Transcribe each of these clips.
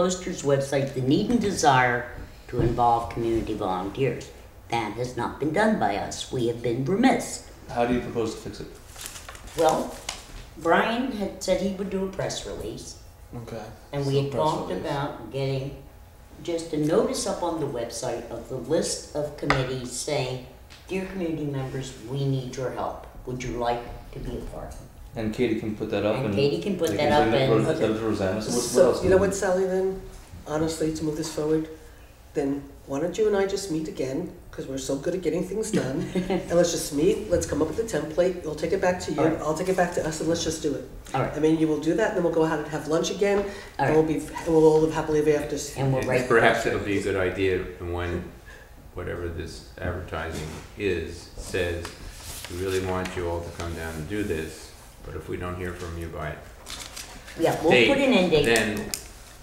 Poster's website the need and desire to involve community volunteers. That has not been done by us. We have been remiss. How do you propose to fix it? Well, Brian had said he would do a press release, Okay. and we had talked about getting just a notice up on the website of the list of committees saying, Dear community members, we need your help. Would you like to be a part? And Katie can put that up and. And Katie can put they that up bring and. Ros- that to Rosanna, so what- what else? So, do you know we- what, Sally, then, honestly, to move this forward, then why don't you and I just meet again? Because we're so good at getting things done. And let's just meet, let's come up with a template, we'll take it back to you, Alright. I'll take it back to us, and let's just do it. All right. I mean, you will do that, and then we'll go out and have lunch again, and we'll Alright. be, we'll all live happily ever after. And we'll write. Perhaps it'll be a good idea when, whatever this advertising is, says, we really want you all to come down and do this, but if we don't hear from you by, Yeah, we'll Date, put an end date. Mm-hmm. then,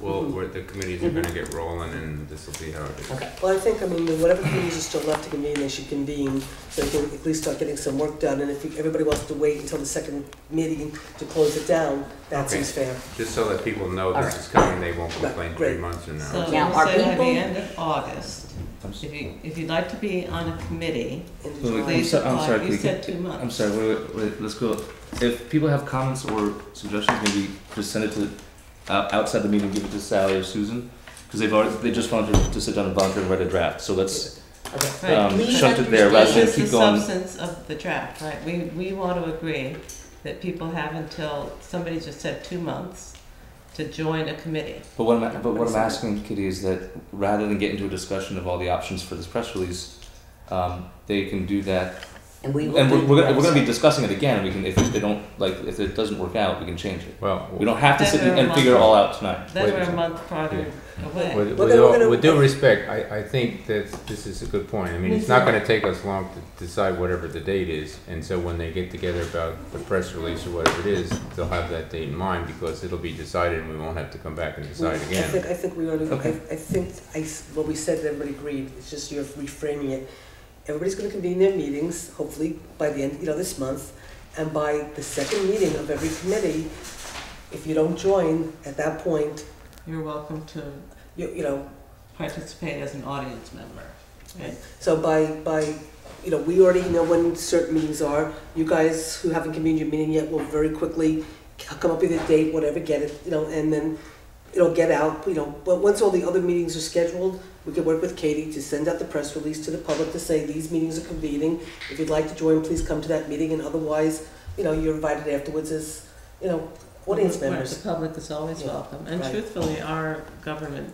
well, we're- the committees are gonna get rolling and this'll be how it is. Okay. Well, I think, I mean, whatever committees are still left to convene, they should convene, so they can at least start getting some work done, and if you- everybody wants to wait until the second meeting to close it down, that Okay. seems fair. Just so that people know All this right. is coming, they won't complain three great. months from So now. Now, are we'll say by the people- end of August, I'm s- if you, if you'd like to be on a committee, End of Wait, wait, I'm July. please so- I'm sorry, apply, can you we said two months. I'm sorry, wait, wait, wait, let's go. If people have comments or suggestions, maybe just send it to, out outside the meeting, give it to Sally or Susan. Cause they've already, they just wanted to sit down and volunteer and write a draft, so let's, Okay. Right. um, Please shunt it there rather understand- than This is the keep going. substance of the draft, right? We, we want to agree that people have until, somebody just said two months, to join a committee. But what I'm, but what I'm asking, Kitty, is that rather than get into a discussion of all the options for this press release, um, they can do that. And we will. And we're, do we're, gonna, we're that. gonna be discussing it again. We can, if they don't like, if it doesn't work out, we can change it. Well, We don't have to sit and, and figure it all out tonight. Then Wait a we're a second. month farther away. With, Well, with, then we're all, gonna- with due respect, I, I think that this is a good point. I mean, it's not going to take us long to decide whatever the date is. And so when they get together about the press release or whatever it is, they'll have that date in mind because it'll be decided and we won't have to come back and decide I again. think, I think we already, I, Okay. I think I s what we said, everybody agreed, it's just you're reframing it. Everybody's gonna convene their meetings, hopefully by the end, you know, this month, and by the second meeting of every committee, if you don't join, at that point, You're welcome to you, you know, participate as an audience member. right? so by, by, you know, we already know when certain meetings are, you guys who haven't convened your meeting yet will very quickly c- come up with a date, whatever, get it, you know, and then it'll get out, you know, but once all the other meetings are scheduled, we can work with Katie to send out the press release to the public to say, these meetings are convening, if you'd like to join, please come to that meeting, and otherwise, you know, you're invited afterwards as, you know, audience Right, members. The public is always Yeah, welcome, and right. truthfully, our government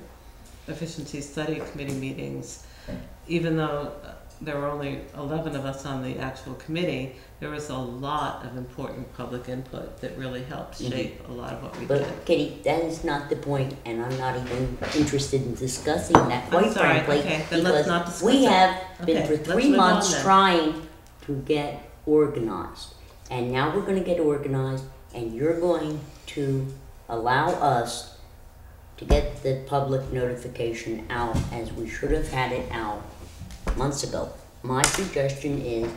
efficiency study committee meetings, even though uh, there were only eleven of us on the actual committee, there was a lot of important public input that really helped Mm-hmm. Mhm. shape a lot of what we did. But Kitty, that is not the point, and I'm not even interested in discussing that, I'm quite sorry, frankly. okay, then let's because not discuss We it. have been Okay, for let's three move on months then. trying to get organized. And now we're gonna get organized, and you're going to allow us to get the public notification out as we should have had it out months ago. My suggestion is,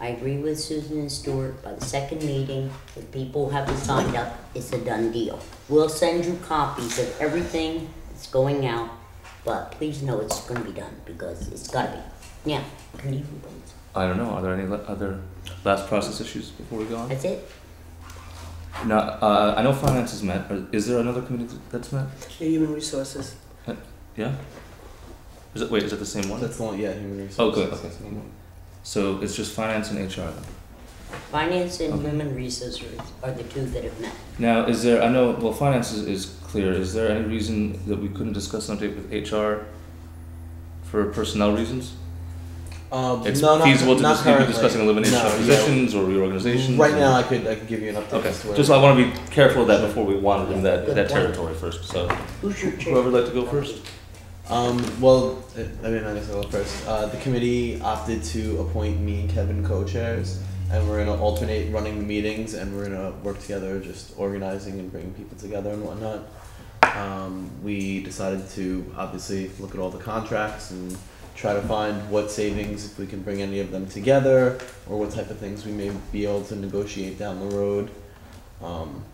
I agree with Susan and Stuart, by the second meeting, if people haven't signed up, it's a done deal. We'll send you copies of everything that's going out, but please know it's gonna be done, because it's gotta be. Yeah, can you, I don't know. Are there any le- other last process issues before we go on? that's it? Now, uh, I know finance is met. but Is there another committee that's met? The human resources. Yeah. Is it wait? Is it the same one? That's the one, yeah, human resources. Oh, good, okay. That's the one. So it's just finance and HR. Then. Finance and Okay. human resources are the two that have met. Now, is there? I know. Well, finance is, is clear. Is there any reason that we couldn't discuss an update with HR for personnel reasons? Um, It's no, not, feasible to not dis- currently. be discussing elimination No, of yeah. positions or reorganizations. Right or- now, I could I could give you an update. Okay. as to where- Just I want to be careful of that before we wander in that Good that point. territory first. So Who's your chair? whoever would like to go first. Um, well, uh, I mean, I guess I'll go first. Uh, the committee opted to appoint me and Kevin co-chairs, and we're gonna alternate running the meetings, and we're gonna work together, just organizing and bringing people together and whatnot. Um, we decided to obviously look at all the contracts and try to find what savings if we can bring any of them together, or what type of things we may be able to negotiate down the road. Um,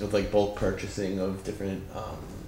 with like bulk purchasing of different um,